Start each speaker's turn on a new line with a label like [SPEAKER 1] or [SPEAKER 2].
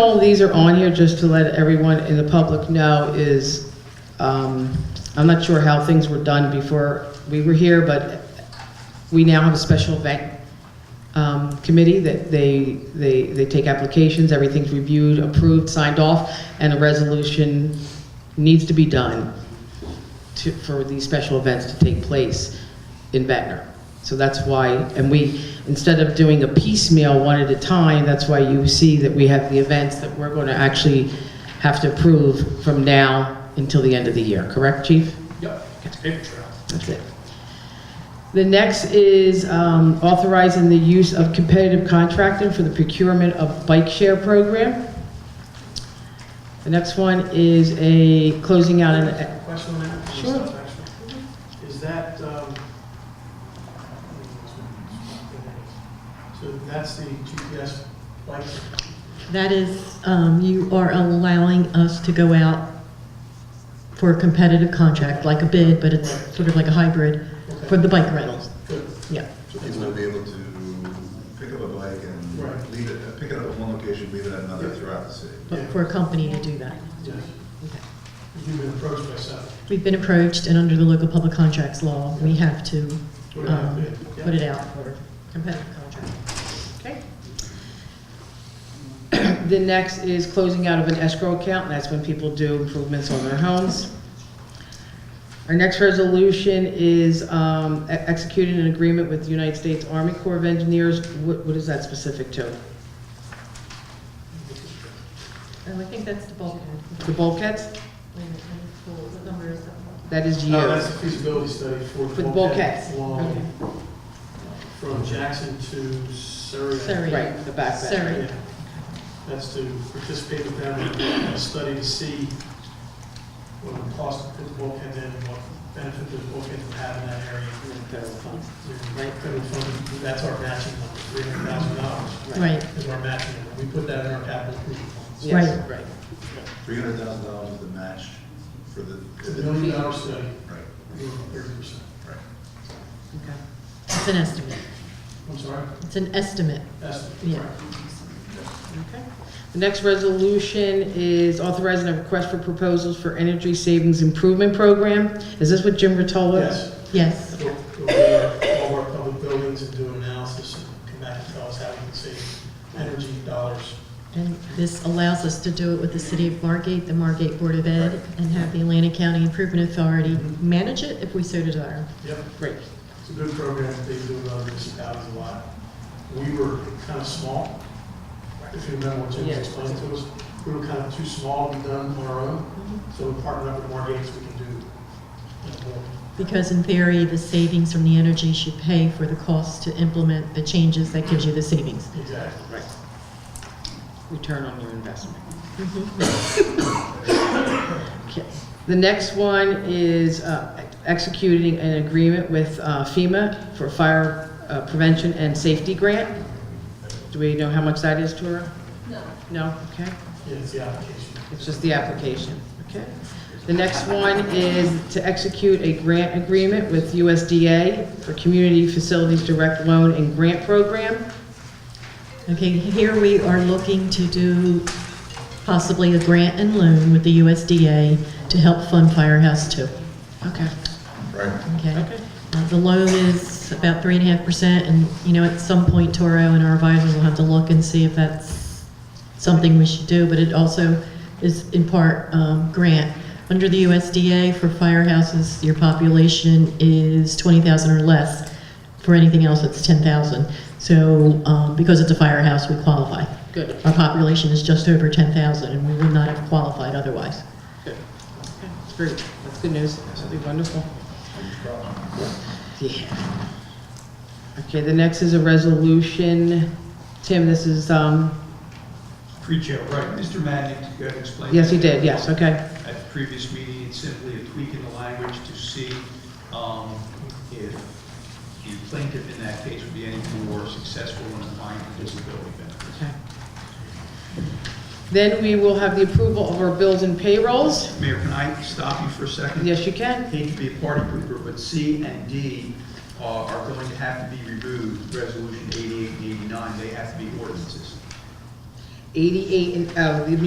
[SPEAKER 1] All these are on here just to let everyone in the public know is, um, I'm not sure how things were done before we were here, but we now have a special event um, committee that they, they, they take applications, everything's reviewed, approved, signed off, and a resolution needs to be done to, for these special events to take place in Ventnor. So that's why, and we, instead of doing a piecemeal one at a time, that's why you see that we have the events that we're going to actually have to approve from now until the end of the year, correct, Chief?
[SPEAKER 2] Yep, it's paper trail.
[SPEAKER 1] That's it. The next is um, authorizing the use of competitive contracting for the procurement of bike share program. The next one is a closing out an
[SPEAKER 3] Question on that?
[SPEAKER 1] uh, Sure.
[SPEAKER 3] Is that, um, so that's the GPS bike?
[SPEAKER 4] That is, um, you are allowing us to go out for a competitive contract, like a bid, but it's sort of like a hybrid for the bike rentals.
[SPEAKER 3] Good.
[SPEAKER 4] Yeah.
[SPEAKER 5] So people will be able to pick up a bike
[SPEAKER 3] Right.
[SPEAKER 5] and leave it, pick it up at one location, leave it at another throughout the city.
[SPEAKER 4] But for a company to do that.
[SPEAKER 3] Yeah.
[SPEAKER 4] Okay.
[SPEAKER 3] You've been approached by some.
[SPEAKER 4] We've been approached, and under the local public contracts law, we have to
[SPEAKER 3] Put it out
[SPEAKER 4] um,
[SPEAKER 3] there, yeah.
[SPEAKER 4] put it out for competitive contract.
[SPEAKER 1] Okay. The next is closing out of an escrow account, and that's when people do improvements on their homes. Our next resolution is um, e- executing an agreement with the United States Army Corps of Engineers. What what is that specific to?
[SPEAKER 4] Oh, I think that's the bulkhead.
[SPEAKER 1] The bulkhead?
[SPEAKER 4] What number is that?
[SPEAKER 1] That is you.
[SPEAKER 3] Uh, That's the feasibility study for.
[SPEAKER 1] For the bulkheads. Okay.
[SPEAKER 3] Long, from Jackson to Surrey.
[SPEAKER 4] Surrey.
[SPEAKER 1] Right, the back.
[SPEAKER 4] Surrey.
[SPEAKER 3] Yeah. That's to participate with them in a study to see what the cost of the bulkhead in, what benefit the bulkhead would have in that area. Right, federal funding, that's our matching number, three hundred thousand dollars
[SPEAKER 4] Right,
[SPEAKER 3] is our matching number. We put that in our capital improvement funds.
[SPEAKER 1] Yes, right.
[SPEAKER 5] Three hundred thousand dollars is the match for the.
[SPEAKER 3] It's a million dollar study,
[SPEAKER 5] Right,
[SPEAKER 3] we were thirty percent.
[SPEAKER 5] right.
[SPEAKER 1] Okay.
[SPEAKER 4] it's an estimate.
[SPEAKER 3] I'm sorry,
[SPEAKER 4] It's an estimate.
[SPEAKER 3] that's,
[SPEAKER 4] Yeah.
[SPEAKER 3] right.
[SPEAKER 1] Okay. The next resolution is authorizing a request for proposals for energy savings improvement program. Is this what Jim Rotolo?
[SPEAKER 3] Yes.
[SPEAKER 4] Yes.
[SPEAKER 3] We'll we'll go over all of our public buildings and do an analysis and come back and tell us how we can save energy dollars.
[SPEAKER 4] And this allows us to do it with the City of Margate, the Margate Board of Ed, and have the Atlantic County Improvement Authority manage it if we so desire.
[SPEAKER 3] Yep,
[SPEAKER 1] Great.
[SPEAKER 3] it's a good program, they do it in other municipalities a lot. We were kind of small, if you remember what Jim
[SPEAKER 1] Yeah.
[SPEAKER 3] explained to us, we were kind of too small to be done on our own, so we partnered up with Margate, so we can do. it more.
[SPEAKER 4] Because in theory, the savings from the energy should pay for the cost to implement the changes that gives you the savings.
[SPEAKER 3] Exactly.
[SPEAKER 1] Right. Return on your investment. Okay. The next one is uh, executing an agreement with uh, FEMA for fire uh, prevention and safety grant. Do we know how much that is, Tora? No. No, okay.
[SPEAKER 3] Yeah, it's the application.
[SPEAKER 1] It's just the application, okay? The next one is to execute a grant agreement with USDA for Community Facilities Direct Loan and Grant Program.
[SPEAKER 4] Okay, here we are looking to do possibly a grant and loan with the USDA to help fund Firehouse Two.
[SPEAKER 1] Okay,
[SPEAKER 5] Right.
[SPEAKER 4] Okay.
[SPEAKER 1] okay.
[SPEAKER 4] Uh, The loan is about three and a half percent, and, you know, at some point, Toro and our advisors will have to look and see if that's something we should do, but it also is in part um, grant. Under the USDA for firehouses, your population is 20,000 or less. For anything else, it's 10,000. So um, because it's a firehouse, we qualify.
[SPEAKER 1] Good.
[SPEAKER 4] Our population is just over 10,000, and we would not have qualified otherwise.
[SPEAKER 1] Good. Okay, That's great. That's good news. That's really wonderful. Yeah. Okay, the next is a resolution. Tim, this is, um,
[SPEAKER 6] Pre-jail, right, Mr. Madden, you got to explain.
[SPEAKER 1] yes, you did, yes, okay.
[SPEAKER 6] At the previous meeting, it's simply a tweak in the language to see um, if the plaintiff in that case would be any more successful in applying for disability benefits.
[SPEAKER 1] Okay. Then we will have the approval of our bills and payrolls.
[SPEAKER 6] Mayor, can I stop you for a second?
[SPEAKER 1] Yes, you can.
[SPEAKER 6] Hate to be a party pooper, but C and D uh, are going to have to be removed, Resolution 88 and 89, they have to be ordinances.
[SPEAKER 1] 88, and, oh, the